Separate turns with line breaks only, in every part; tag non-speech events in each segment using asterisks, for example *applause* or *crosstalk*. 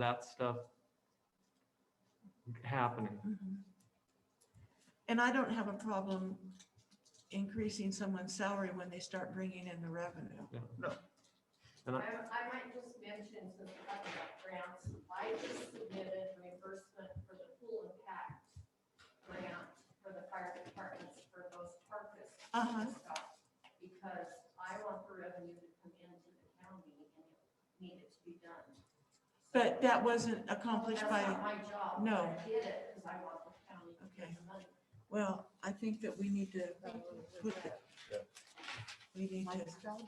that stuff happening.
Mhm. And I don't have a problem increasing someone's salary when they start bringing in the revenue.
And I,
I, I might just mention, since we're talking about grants, I just submitted reimbursement for the pool impact grant for the fire departments for those carcass
Uh-huh.
stuff. Because I want the revenue to come into the county and it needed to be done.
But that wasn't
So
accomplished
That's
by,
not my job.
no.
but I did it because I want the county to
Okay.
get the money.
well, I think that we need to, put the- we need to.
Mike's job?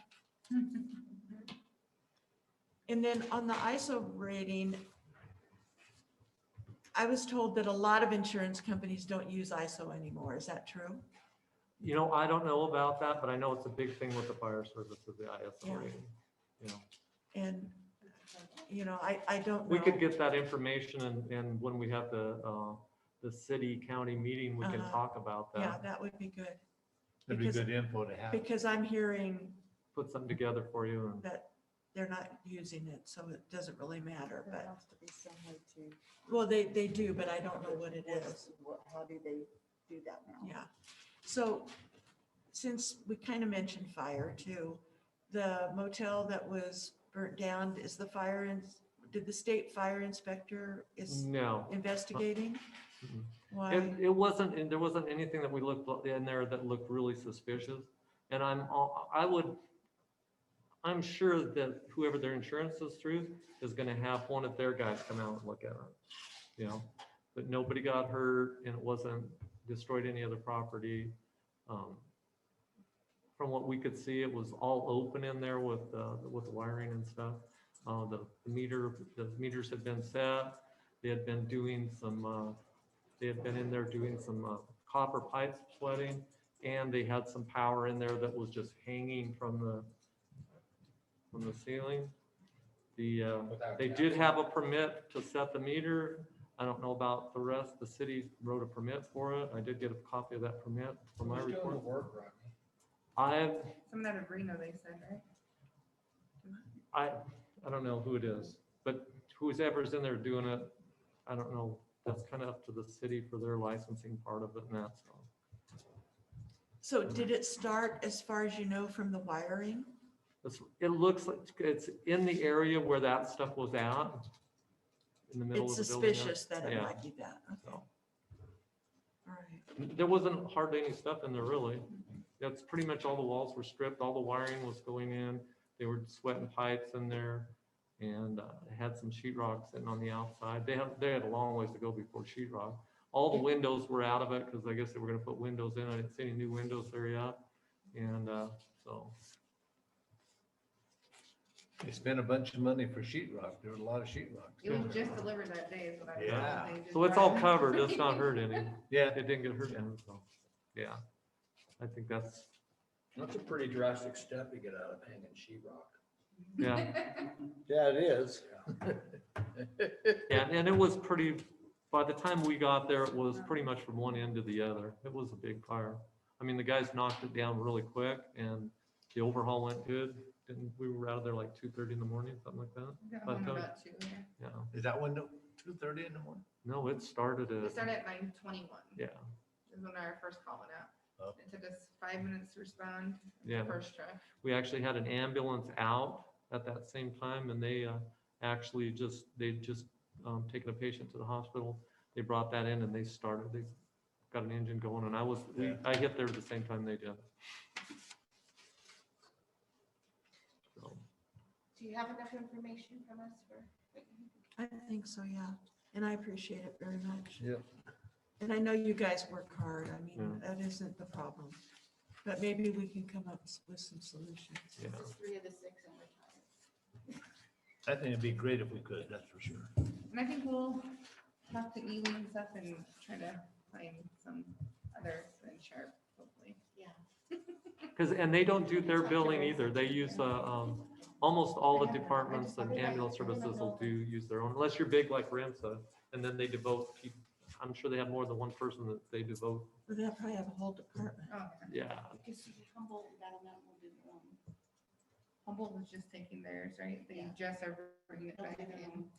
And then on the ISO rating, I was told that a lot of insurance companies don't use ISO anymore. Is that true?
you know, I don't know about that, but I know it's a big thing with the fire service of the ISO
Yeah.
rating. You know,
And, you know, I, I don't know.
we could get that information and, and when we have the, uh, the city county meeting, we can
Uh-huh.
talk about
Yeah,
that.
that would be good,
That'd be
Because-
good info to have.
because I'm hearing
Put something together for you and
that they're not using it, so it doesn't really matter,
There
but,
has to be some way to.
well, they, they do, but I don't know what it is,
What- How do they do that now?
yeah. So, since we kind of mentioned fire too, the motel that was burnt down, is the fire, ins- did the state fire inspector is
no.
investigating?
Mm. Mm-mm.
Why?
And it wasn't, and there wasn't anything that we looked in there that looked really suspicious. And I'm, all- I would, I'm sure that whoever their insurance is through is gonna have one of their guys come out and look at it. You know, but nobody got hurt and it wasn't destroyed any other property. Um, From what we could see, it was all open in there with, uh, with the wiring and stuff. Uh, the the meter, the meters had been set. They had been doing some, uh, they had been in there doing some uh, copper pipes flooding, and they had some power in there that was just hanging from the, from the ceiling. The, uh, they did have a permit to set the meter. I don't know about the rest. The city wrote a permit for it. I did get a copy of that permit for my report. I've,
Some out of Reno, they said, right?
I, I don't know who it is, but whoever's in there doing it, I don't know. That's kind of up to the city for their licensing part of it and that's all.
So did it start, as far as you know, from the wiring?
It's, it looks like it's in the area where that stuff was at. In the middle
It's
of the building.
suspicious that it
Yeah.
might be that, okay. All
So.
right.
There wasn't hardly any stuff in there really. That's pretty much all the walls were stripped, all the wiring was going in. They were sweating pipes in there. And uh, it had some sheetrock sitting on the outside. They had, they had a long ways to go before sheetrock. All the windows were out of it because I guess they were gonna put windows in. I didn't see any new windows there yet. And uh, so.
They spent a bunch of money for sheetrock. There was a lot of sheetrock.
It was just delivered that day is what I.
Yeah.
So it's all covered, it's
*laughs*
not
*laughs*
hurt any.
Yeah,
It didn't get hurt any, so, yeah. I think that's,
That's a pretty drastic step to get out of hanging sheetrock.
yeah,
Yeah, it is.
yeah, and it was pretty, by the time we got there, it was pretty much from one end to the other. It was a big fire. I mean, the guys knocked it down really quick and the overhaul went good. And we were out of there like two thirty in the morning, something like that.
We got
But,
home
um,
about two, yeah.
Yeah,
Is that window two thirty in the morning?
no, it started
We
at,
started at nine twenty-one
yeah,
is when our first call went
Oh.
out. It took us five minutes to respond,
yeah.
first truck.
we actually had an ambulance out at that same time and they uh, actually just, they just um, taken a patient to the hospital. They brought that in and they started, they got an engine going and I was, we-
Yeah.
I hit there at the same time they did. So,
Do you have enough information from us for?
I think so, yeah. And I appreciate it very much.
Yeah.
And I know you guys work hard. I mean,
Yeah.
that isn't the problem. But maybe we can come up s- with some solutions.
yeah.
Three of the six and retired.
I think it'd be great if we could, that's for sure.
And I think we'll talk to Ely and stuff and try to find some others than Sharp, hopefully.
Because, and they don't do their billing either. They use, uh, um, almost all the departments and ambulance services will do, use their own, unless you're big like Ramsa. And then they devote, peop- I'm sure they have more than one person that they devote,
But They'll probably have a whole department.
Oh, yeah.
yeah.
Because you humble, that amount will do the wrong.
Humboldt was just taking theirs, right? They
Yeah.
just are bringing it back in.